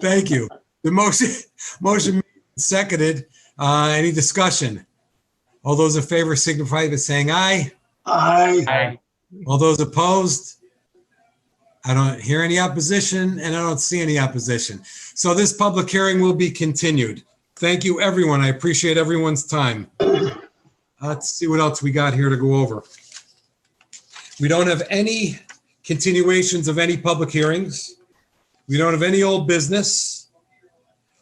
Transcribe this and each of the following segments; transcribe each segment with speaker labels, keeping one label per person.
Speaker 1: Thank you. The motion, motion seconded. Uh, any discussion? All those in favor signify by saying aye.
Speaker 2: Aye.
Speaker 3: Aye.
Speaker 1: All those opposed? I don't hear any opposition and I don't see any opposition. So this public hearing will be continued. Thank you, everyone. I appreciate everyone's time. Let's see what else we got here to go over. We don't have any continuations of any public hearings. We don't have any old business.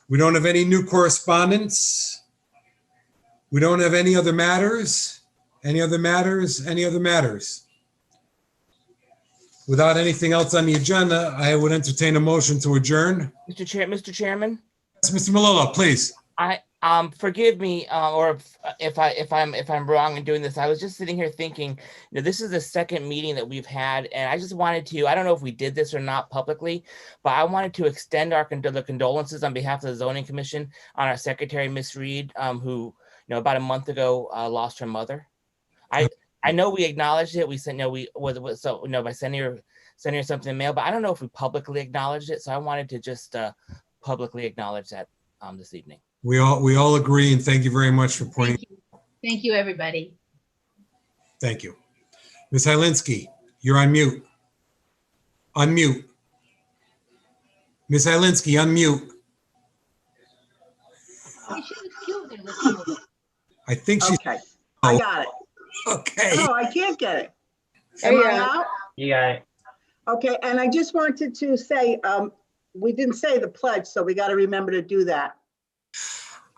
Speaker 1: We don't have any new correspondence. We don't have any other matters, any other matters, any other matters. Without anything else on the agenda, I would entertain a motion to adjourn.
Speaker 3: Mr. Chair, Mr. Chairman,
Speaker 1: Yes, Mr. Malolo, please.
Speaker 3: um, forgive me, uh, or if- if I, if I'm, if I'm wrong in doing this, I was just sitting here thinking, you know, this is the second meeting that we've had, and I just wanted to, I don't know if we did this or not publicly, but I wanted to extend our condo- the condolences on behalf of the zoning commission on our secretary, Miss Reed, um, who, you know, about a month ago, uh, lost her mother. I, I know we acknowledged it, we said, no, we, was, was, so, you know, by sending her, sending her something in the mail, but I don't know if we publicly acknowledged it, so I wanted to just, uh, publicly acknowledge that, um, this evening.
Speaker 1: We all, we all agree and thank you very much for pointing.
Speaker 4: Thank you. Thank you, everybody.
Speaker 1: Thank you. Ms. Hylinski, you're on mute. Unmute. Ms. Hylinski, unmute.
Speaker 4: They should have killed their little boy.
Speaker 1: I think she's,
Speaker 2: Okay, I got it.
Speaker 1: okay.
Speaker 2: Oh, I can't get it.
Speaker 4: There
Speaker 2: Am
Speaker 4: you
Speaker 2: I
Speaker 4: are.
Speaker 2: out?
Speaker 3: You got it.
Speaker 2: Okay, and I just wanted to say, um, we didn't say the pledge, so we got to remember to do that.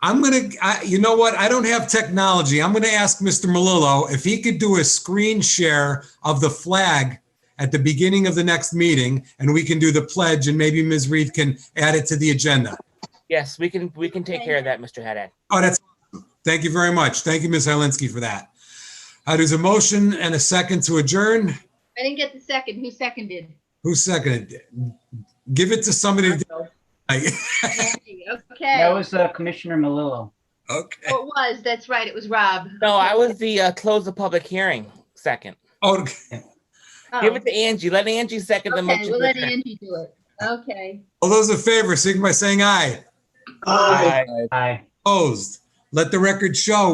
Speaker 1: I'm gonna, I, you know what? I don't have technology. I'm gonna ask Mr. Malillo if he could do a screen share of the flag at the beginning of the next meeting, and we can do the pledge, and maybe Ms. Reed can add it to the agenda.
Speaker 3: Yes, we can, we can take care of that, Mr. Haddad.
Speaker 1: Oh, that's, thank you very much. Thank you, Ms. Helinski, for that. Uh, There's a motion and a second to adjourn.
Speaker 4: I didn't get the second. Who seconded?
Speaker 1: Who seconded? it? Give it to somebody. to-
Speaker 4: Andy.
Speaker 5: That
Speaker 4: Okay.
Speaker 5: was uh, Commissioner Malillo.
Speaker 1: Okay.
Speaker 4: Oh, It was, that's right. It was Rob.
Speaker 3: No, I was the, uh, close the public hearing second.
Speaker 1: Oh,
Speaker 4: Oh,
Speaker 3: Give it to Angie. Let Angie second the
Speaker 4: Okay,
Speaker 3: motion.
Speaker 4: we'll
Speaker 3: to
Speaker 4: let
Speaker 3: adjourn.
Speaker 4: Angie do it. Okay.
Speaker 1: All those in favor, signify by saying aye.
Speaker 2: Aye.
Speaker 5: Aye.
Speaker 1: Opposed. Let the record show,